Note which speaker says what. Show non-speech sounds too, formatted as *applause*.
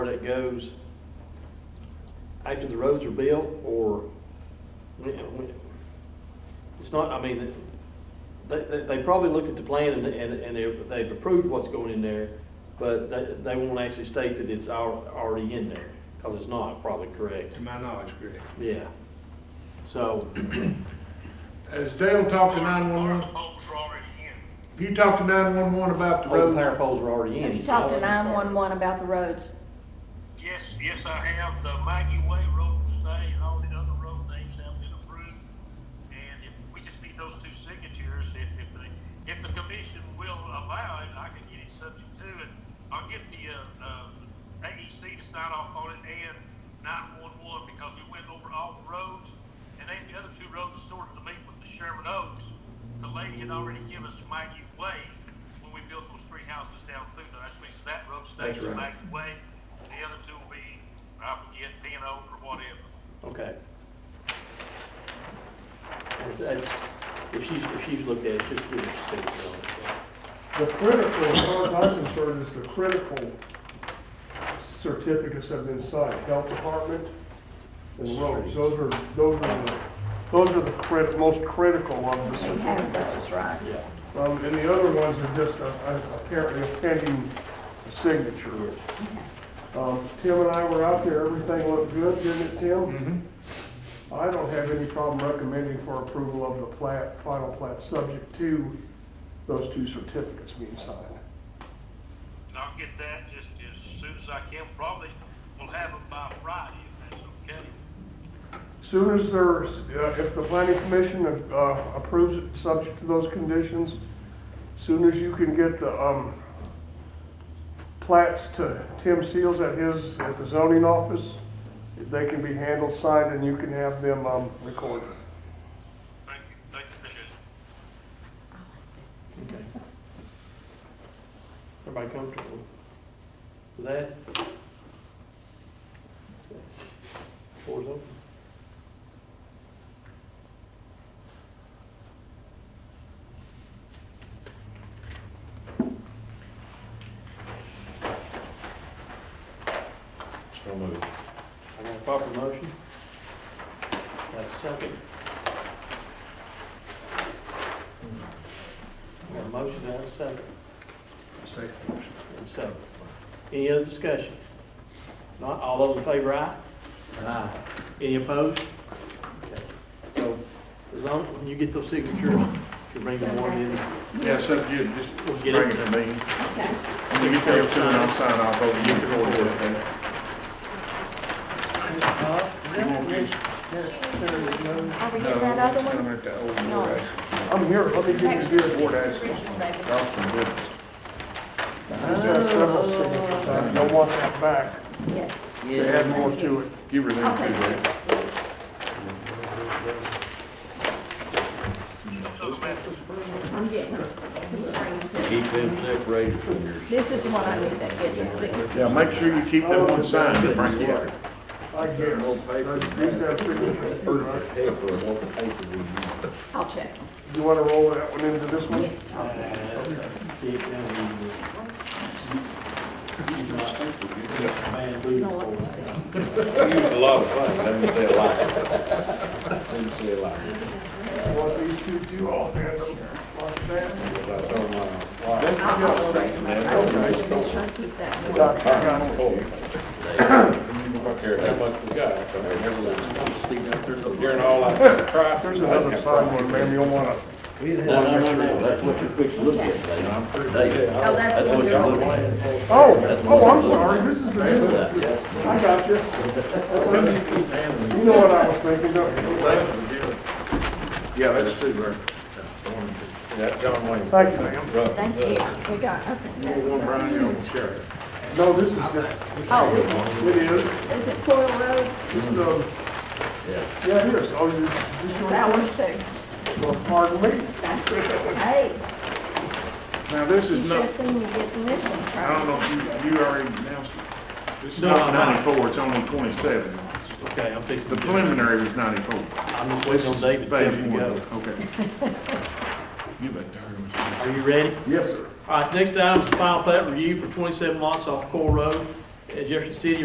Speaker 1: where that goes after the roads are built or, when- when- it's not, I mean, they, they, they probably looked at the plan and, and, and they've, they've approved what's going in there, but they, they won't actually state that it's al- already in there, because it's not probably correct,
Speaker 2: To my knowledge, correct.
Speaker 1: yeah. So,
Speaker 2: Has Dale talked to nine-one-one?
Speaker 3: Holes are already in.
Speaker 2: Have you talked to nine-one-one about the
Speaker 1: all the power
Speaker 2: road?
Speaker 1: poles are already in.
Speaker 4: Have you
Speaker 1: so-
Speaker 4: talked to nine-one-one about the roads?
Speaker 3: Yes, yes, I have. The Maggie Way Road will stay and all the other road names have been approved. And if, we just need those two signatures, if, if the, if the commission will allow it, I can get it subject to it. I'll get the, uh, uh, AEC to sign off on it and nine-one-one because we went over all the roads. And then the other two roads sorted to meet with the Sherman Oaks. The lady had already given us Maggie Way when we built those three houses down through there. That means that road stays
Speaker 2: That's right.
Speaker 3: Maggie way, the other two will be, I forget, ten over or whatever.
Speaker 1: Okay. That's, that's, if she's, if she's looked at it, just give her a statement on it.
Speaker 5: The critical, as far as I'm concerned, is the critical certificates have been signed, health department and roads. Those are, those are the, those are the crit, most critical of the
Speaker 4: They have
Speaker 5: certificates.
Speaker 4: those, right?
Speaker 1: Yeah.
Speaker 5: Um, and the other ones are just uh, uh, apparently a pending signature. Um, Tim and I were out there, everything looked good, didn't it, Tim?
Speaker 2: Mhm.
Speaker 5: I don't have any problem recommending for approval of the plat, final plat, subject to those two certificates being signed.
Speaker 3: And I'll get that just as soon as I can, probably we will have it by Friday, if that's okay.
Speaker 5: Soon as there's, uh, if the planning commission uh, approves it, subject to those conditions, soon as you can get the um, plats to Tim Seals at his, at the zoning office, they can be handled, signed, and you can have them um, recorded.
Speaker 3: Thank you, thank you, appreciate it.
Speaker 1: Okay. Everybody comfortable with that? Floor's open.
Speaker 6: So moved.
Speaker 1: I got a proper motion. Got a second. I got a motion, I have a second.
Speaker 2: Second.
Speaker 1: And so, any other discussion? Not, all those in favor, aye? Aye. Any opposed? Okay. So, as long, when you get those signatures, you bring them one in.
Speaker 6: Yeah, so you just
Speaker 1: We'll get
Speaker 6: bring
Speaker 1: it.
Speaker 6: it to me.
Speaker 4: Okay.
Speaker 6: When you get there, soon I'll sign off over, you can order it then. You won't be-
Speaker 4: Are we
Speaker 6: No,
Speaker 4: getting that other
Speaker 6: I'm
Speaker 4: one?
Speaker 6: at that old
Speaker 4: No.
Speaker 6: Ward Ash.
Speaker 5: I'm here, let me give you this.
Speaker 6: Ward Ash across from Goodness.
Speaker 5: He's got several signatures. I don't want that back.
Speaker 4: Yes.
Speaker 5: They add more to it.
Speaker 6: Give her them two, Rick.
Speaker 3: So, Matt,
Speaker 4: I'm getting it. He's bringing it.
Speaker 7: Keep them separated from your
Speaker 4: This is the one I need to get this signature.
Speaker 6: Yeah, make sure you keep that one signed and bring it up.
Speaker 5: I guess. These have signatures, right?
Speaker 7: paper, what the paper we use.
Speaker 4: I'll check.
Speaker 5: You want to roll that one into this one?
Speaker 4: Yes. I'll check. No, let me see.
Speaker 7: We use a lot of fun, let me say a lot. Let me say a lot.
Speaker 5: What these two do, I'll hand them like that.
Speaker 7: Because I told my *coughs* wife,
Speaker 4: I'll follow that. I'm gonna try to keep that. one.
Speaker 5: Got-
Speaker 7: I
Speaker 5: got
Speaker 7: don't
Speaker 5: it.
Speaker 7: care. I don't care how much we got, so I never lose. During all I tried.
Speaker 5: There's another side one, ma'am, you'll want to.
Speaker 8: No, no, no, no, that's what you're fixing to look at, Dave. Dave,
Speaker 4: Oh, that's
Speaker 8: that's
Speaker 4: the one
Speaker 8: what
Speaker 4: you're
Speaker 8: y'all
Speaker 4: looking
Speaker 8: looking
Speaker 4: at.
Speaker 8: at.
Speaker 5: Oh, oh, I'm sorry, this is the new one.
Speaker 8: Yes.
Speaker 5: I got you. You know what I was thinking, don't you?
Speaker 6: Yeah, that's two, Rick. That's John Wayne.
Speaker 5: Thank you, ma'am.
Speaker 4: Thank you. We got, okay.
Speaker 6: One Brian, you know, Sheriff.
Speaker 5: No, this is, the-
Speaker 4: Oh, is
Speaker 5: it is,
Speaker 4: it, is it Coyle Road?
Speaker 5: this is, um, yeah, it is. Oh, you, this is
Speaker 4: That one's
Speaker 5: yours?
Speaker 4: too.
Speaker 5: Well, pardon me.
Speaker 4: That's pretty good. Hey,
Speaker 6: Now, this
Speaker 4: you
Speaker 6: is
Speaker 4: should have
Speaker 6: not,
Speaker 4: seen me getting this one. Charlie.
Speaker 6: I don't know if you, you already announced it. This is
Speaker 1: No,
Speaker 6: not
Speaker 1: I'm not.
Speaker 6: ninety-four, it's only twenty-seven.
Speaker 1: Okay, I'm fixing.
Speaker 6: The
Speaker 1: to do it.
Speaker 6: preliminary was ninety-four.
Speaker 1: I'm just waiting on David to
Speaker 6: Phase
Speaker 1: come
Speaker 6: one,
Speaker 1: together.
Speaker 6: Okay. *laughs* You bet darn.
Speaker 1: Are you ready?
Speaker 5: Yes, sir.
Speaker 1: All right, next item is the final plat review for twenty-seven lots off Core Road uh, Jefferson City